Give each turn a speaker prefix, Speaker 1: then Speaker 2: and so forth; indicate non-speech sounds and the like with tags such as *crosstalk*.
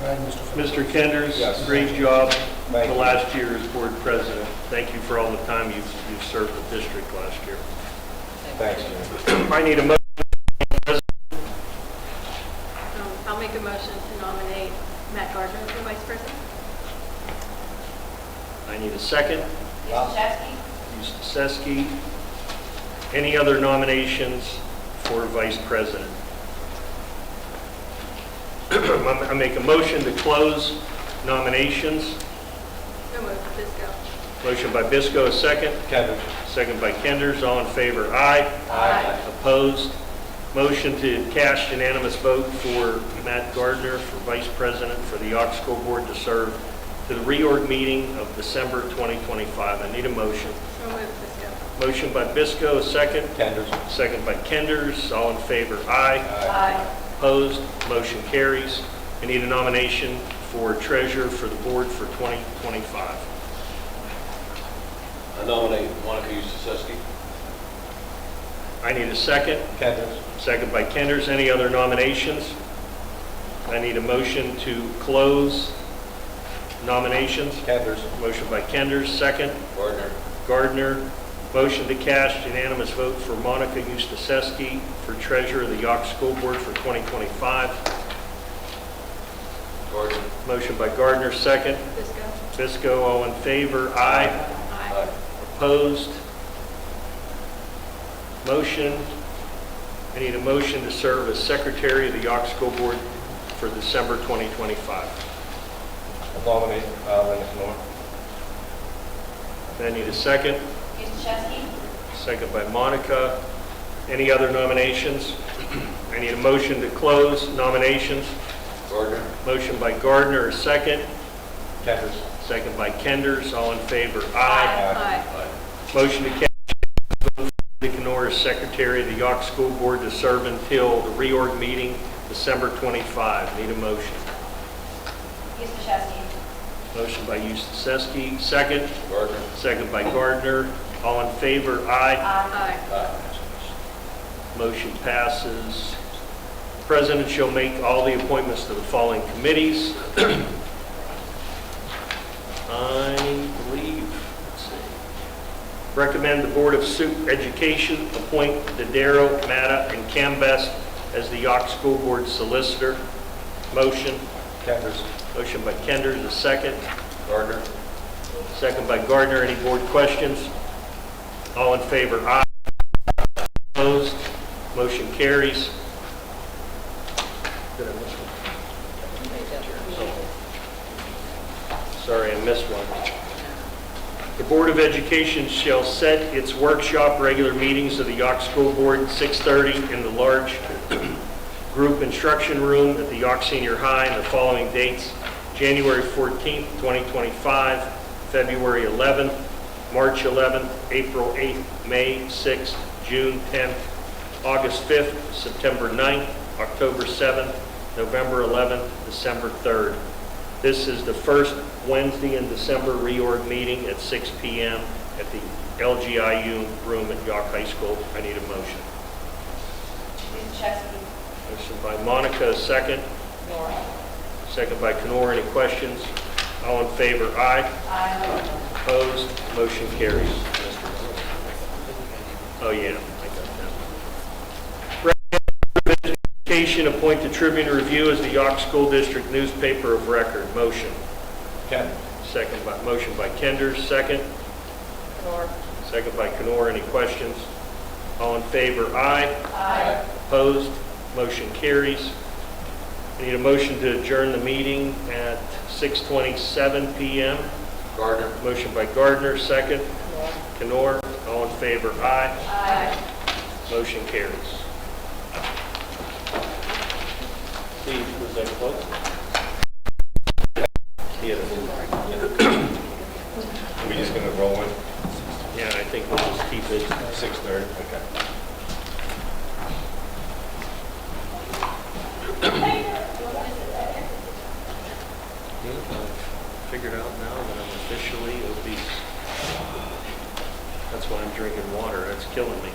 Speaker 1: Right, Mr. Ford.
Speaker 2: Mr. Kenders,
Speaker 3: Yes.
Speaker 2: great job
Speaker 3: Thank
Speaker 2: the
Speaker 3: you.
Speaker 2: last year as board president. Thank you for all the time you've, you've served the district last year.
Speaker 3: Thanks, Jim.
Speaker 2: I need a motion,
Speaker 4: Um, I'll make a motion to nominate Matt Gardner for vice president.
Speaker 2: I need a second.
Speaker 3: Wow.
Speaker 2: Ms. Seski. Any other nominations for vice president? *clears throat* I make a motion to close nominations.
Speaker 4: No move, Fisco.
Speaker 2: Motion by Bisco, a second.
Speaker 3: Kevin?
Speaker 2: Second by Kenders. All in favor? Aye.
Speaker 4: Aye.
Speaker 2: Opposed? Motion to cast unanimous vote for Matt Gardner for Vice President for the Yawk School Board to serve to the reorg meeting of December 2025. I need a motion.
Speaker 4: No move, Fisco.
Speaker 2: Motion by Bisco, a second.
Speaker 3: Kenders?
Speaker 2: Second by Kenders. All in favor? Aye.
Speaker 4: Aye.
Speaker 2: Opposed? Motion carries. I need a nomination for treasurer for the board for 2025.
Speaker 5: I nominate Monica Eustacek.
Speaker 2: I need a second.
Speaker 3: Kenders?
Speaker 2: Second by Kenders. Any other nominations? I need a motion to close nominations.
Speaker 3: Kenders?
Speaker 2: Motion by Kenders, second.
Speaker 5: Gardner.
Speaker 2: Gardner. Motion to cast unanimous vote for Monica Eustacek for treasurer of the Yawk School Board for 2025.
Speaker 5: Gardner.
Speaker 2: Motion by Gardner, second.
Speaker 4: Fisco.
Speaker 2: Fisco, all in favor? Aye.
Speaker 4: Aye.
Speaker 2: Opposed? Motion. I need a motion to serve as secretary of the Yawk School Board for December 2025.
Speaker 3: Nominate uh, Linus Moore?
Speaker 2: I need a second.
Speaker 4: Eustachevski.
Speaker 2: Second by Monica. Any other nominations? I need a motion to close nominations.
Speaker 5: Gardner.
Speaker 2: Motion by Gardner, a second.
Speaker 3: Kenders?
Speaker 2: Second by Kenders. All in favor?
Speaker 4: Aye.
Speaker 2: Motion to cast Linda Canor as Secretary of the Yawk School Board to serve until the reorg meeting, December 25. Need a motion.
Speaker 4: Eustachevski.
Speaker 2: Motion by Eustacek, second.
Speaker 5: Gardner.
Speaker 2: Second by Gardner. All in favor? Aye.
Speaker 4: Aye.
Speaker 2: Motion passes. President shall make all the appointments to the following committees. *clears throat* I believe, let's see. Recommend the Board of Su- Education appoint Dadaro, Matta, and Cambest as the Yawk School Board Solicitor. Motion.
Speaker 3: Kenders?
Speaker 2: Motion by Kenders, a second.
Speaker 5: Gardner.
Speaker 2: Second by Gardner. Any board questions? All in favor? Aye. Opposed? Motion carries. Did I miss one? Sorry, I missed one. The Board of Education shall set its workshop regular meetings of the Yawk School Board, 6:30 in the large group instruction room at the York Senior High and the following dates, January 14th, 2025, February 11th, March 11th, April 8th, May 6th, June 10th, August 5th, September 9th, October 7th, November 11th, December 3rd. This is the first Wednesday in December reorg meeting at 6 PM at the LGIU room at York High School. I need a motion.
Speaker 4: Eustachevski.
Speaker 2: Motion by Monica, second. Second by Kenora. Any questions? All in favor? Aye.
Speaker 4: Aye.
Speaker 2: Opposed? Motion carries. Oh, yeah, I got that. Recommend Education appoint the Tribune Review as the York School District newspaper of record. Motion.
Speaker 3: Kenders?
Speaker 2: Second by, motion by Kenders, second. Second by Kenora. Any questions? All in favor? Aye.
Speaker 4: Aye.
Speaker 2: Opposed? Motion carries. I need a motion to adjourn the meeting at 6:27 PM.
Speaker 5: Gardner.
Speaker 2: Motion by Gardner, second. Canor, all in favor, aye.
Speaker 4: Aye.
Speaker 2: Motion carries. Steve, was that close? Yeah,
Speaker 3: Are we just gonna roll in?
Speaker 2: yeah, I think we'll just keep it.
Speaker 3: 6:30? Okay.
Speaker 2: Figured out now that I'm officially obese. That's why I'm drinking water, that's killing me.